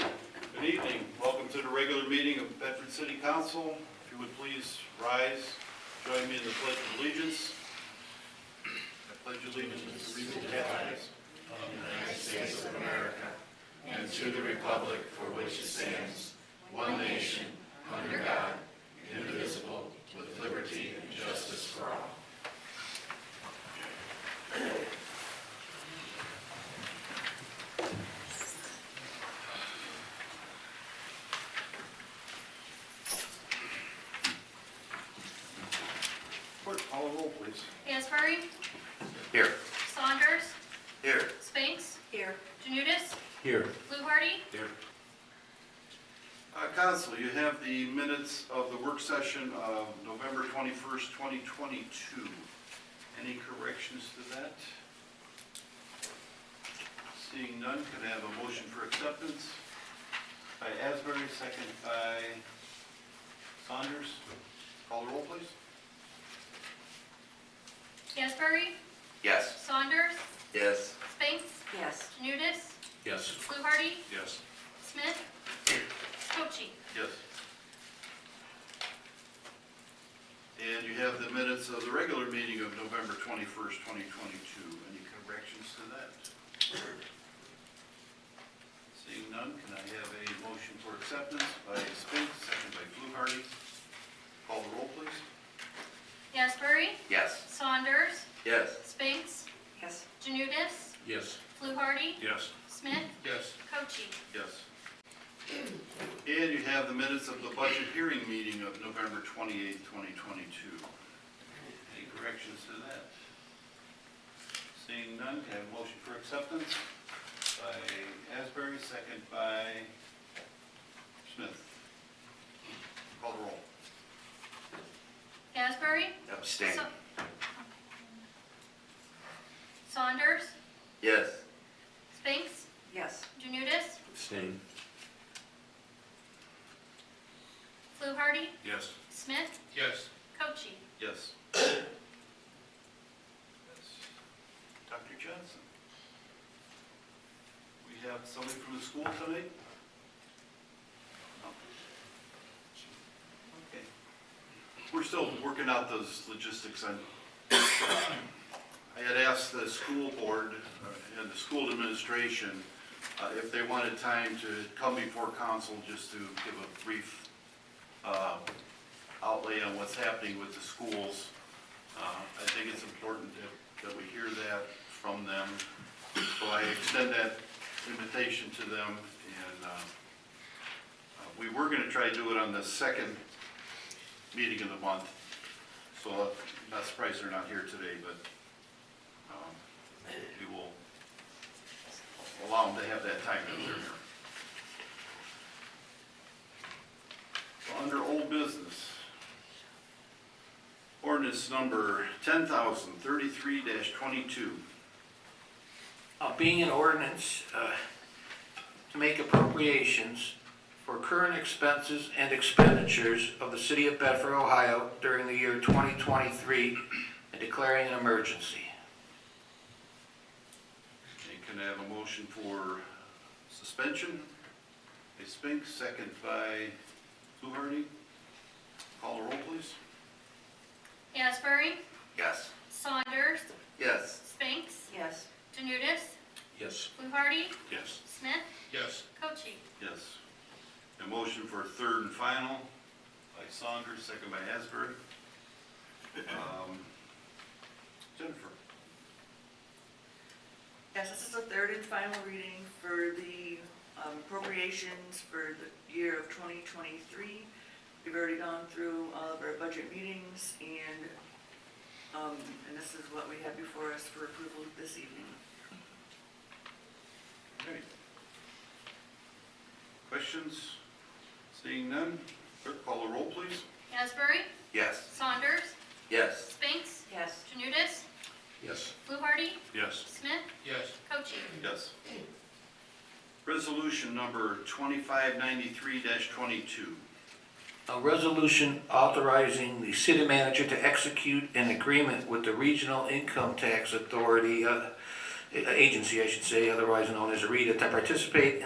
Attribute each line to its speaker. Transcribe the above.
Speaker 1: Good evening. Welcome to the regular meeting of Bedford City Council. If you would please rise, join me in the pledge of allegiance. I pledge allegiance to the United States of America and to the republic for which it stands, one nation. Clerk, call the roll, please.
Speaker 2: Hansberry,
Speaker 1: Here.
Speaker 2: Saunders,
Speaker 1: Here.
Speaker 2: Spinks,
Speaker 3: Here.
Speaker 2: Janudis,
Speaker 1: Here.
Speaker 2: Fluharty,
Speaker 1: Here. Council, Uh, you have the minutes of the work session of November 21st, 2022. Any corrections to that? Seeing none, could I have a motion for acceptance? By Asbury, second by Saunders. Call the roll, please.
Speaker 2: Hansberry,
Speaker 4: Yes.
Speaker 2: Saunders,
Speaker 4: Yes.
Speaker 2: Spinks,
Speaker 3: Yes.
Speaker 2: Janudis,
Speaker 4: Yes.
Speaker 2: Fluharty,
Speaker 4: Yes.
Speaker 2: Smith, Cochee.
Speaker 1: Yes. And you have the minutes of the regular meeting of November 21st, 2022. Any corrections to that? Seeing none, can I have a motion for acceptance by Spinks, second by Fluharty? Call the roll, please.
Speaker 2: Hansberry,
Speaker 4: Yes.
Speaker 2: Saunders,
Speaker 4: Yes.
Speaker 2: Spinks,
Speaker 3: Yes.
Speaker 2: Janudis,
Speaker 4: Yes.
Speaker 2: Fluharty,
Speaker 4: Yes.
Speaker 2: Smith,
Speaker 1: Yes.
Speaker 2: Cochee.
Speaker 1: Yes. And you have the minutes of the budget hearing meeting of November 28, 2022. Any corrections to that? Seeing none, can I have a motion for acceptance by Asbury, second by Smith? Call the roll.
Speaker 2: Hansberry,
Speaker 4: Abstain.
Speaker 2: Sa- Saunders,
Speaker 4: Yes.
Speaker 2: Spinks,
Speaker 3: Yes.
Speaker 2: Janudis,
Speaker 4: Abstain.
Speaker 2: Fluharty,
Speaker 4: Yes.
Speaker 2: Smith,
Speaker 4: Yes.
Speaker 2: Cochee.
Speaker 1: Yes. Dr. Johnson? We have somebody from the school tonight? No. Okay. We're still working out those logistics. I I had asked the school board uh, and the school administration uh, if they wanted time to come before council just to give a brief uh, outlay on what's happening with the schools. Uh, I think it's important that, that we hear that from them. So I extend that invitation to them, and uh, uh, we were gonna try to do it on the second meeting of the month. So I'm not surprised they're not here today, but um, we will allow them to have that time if they're here. Under old business, ordinance number ten thousand thirty-three twenty-two.
Speaker 5: Uh, being an ordinance uh, to make appropriations for current expenses and expenditures of the city of Bedford, Ohio during the year 2023 and declaring an emergency.
Speaker 1: And can I have a motion for suspension? By Spinks, second by Fluharty. Call the roll, please.
Speaker 2: Hansberry,
Speaker 4: Yes.
Speaker 2: Saunders,
Speaker 4: Yes.
Speaker 2: Spinks,
Speaker 3: Yes.
Speaker 2: Janudis,
Speaker 4: Yes.
Speaker 2: Fluharty,
Speaker 1: Yes.
Speaker 2: Smith,
Speaker 4: Yes.
Speaker 2: Cochee.
Speaker 1: Yes. A motion for third and final by Saunders, second by Asbury. Um, Jennifer?
Speaker 3: Yes, this is the third and final reading for the um, appropriations for the year of 2023. We've already gone through all of our budget meetings and, um, and this is what we have before us for approval this evening.
Speaker 1: Okay. Questions? Seeing none, clerk call the roll, please.
Speaker 2: Asbury,
Speaker 4: Yes.
Speaker 2: Saunders,
Speaker 4: Yes.
Speaker 2: Spinks,
Speaker 3: Yes.
Speaker 2: Janudis,
Speaker 4: Yes.
Speaker 2: Fluharty,
Speaker 1: Yes.
Speaker 2: Smith,
Speaker 4: Yes.
Speaker 2: Cochee.
Speaker 1: Yes. Resolution number twenty-five ninety-three twenty-two.
Speaker 5: A resolution authorizing the city manager to execute an agreement with the Regional Income Tax Authority, uh, a- agency, I should say, otherwise known as RETA, to participate in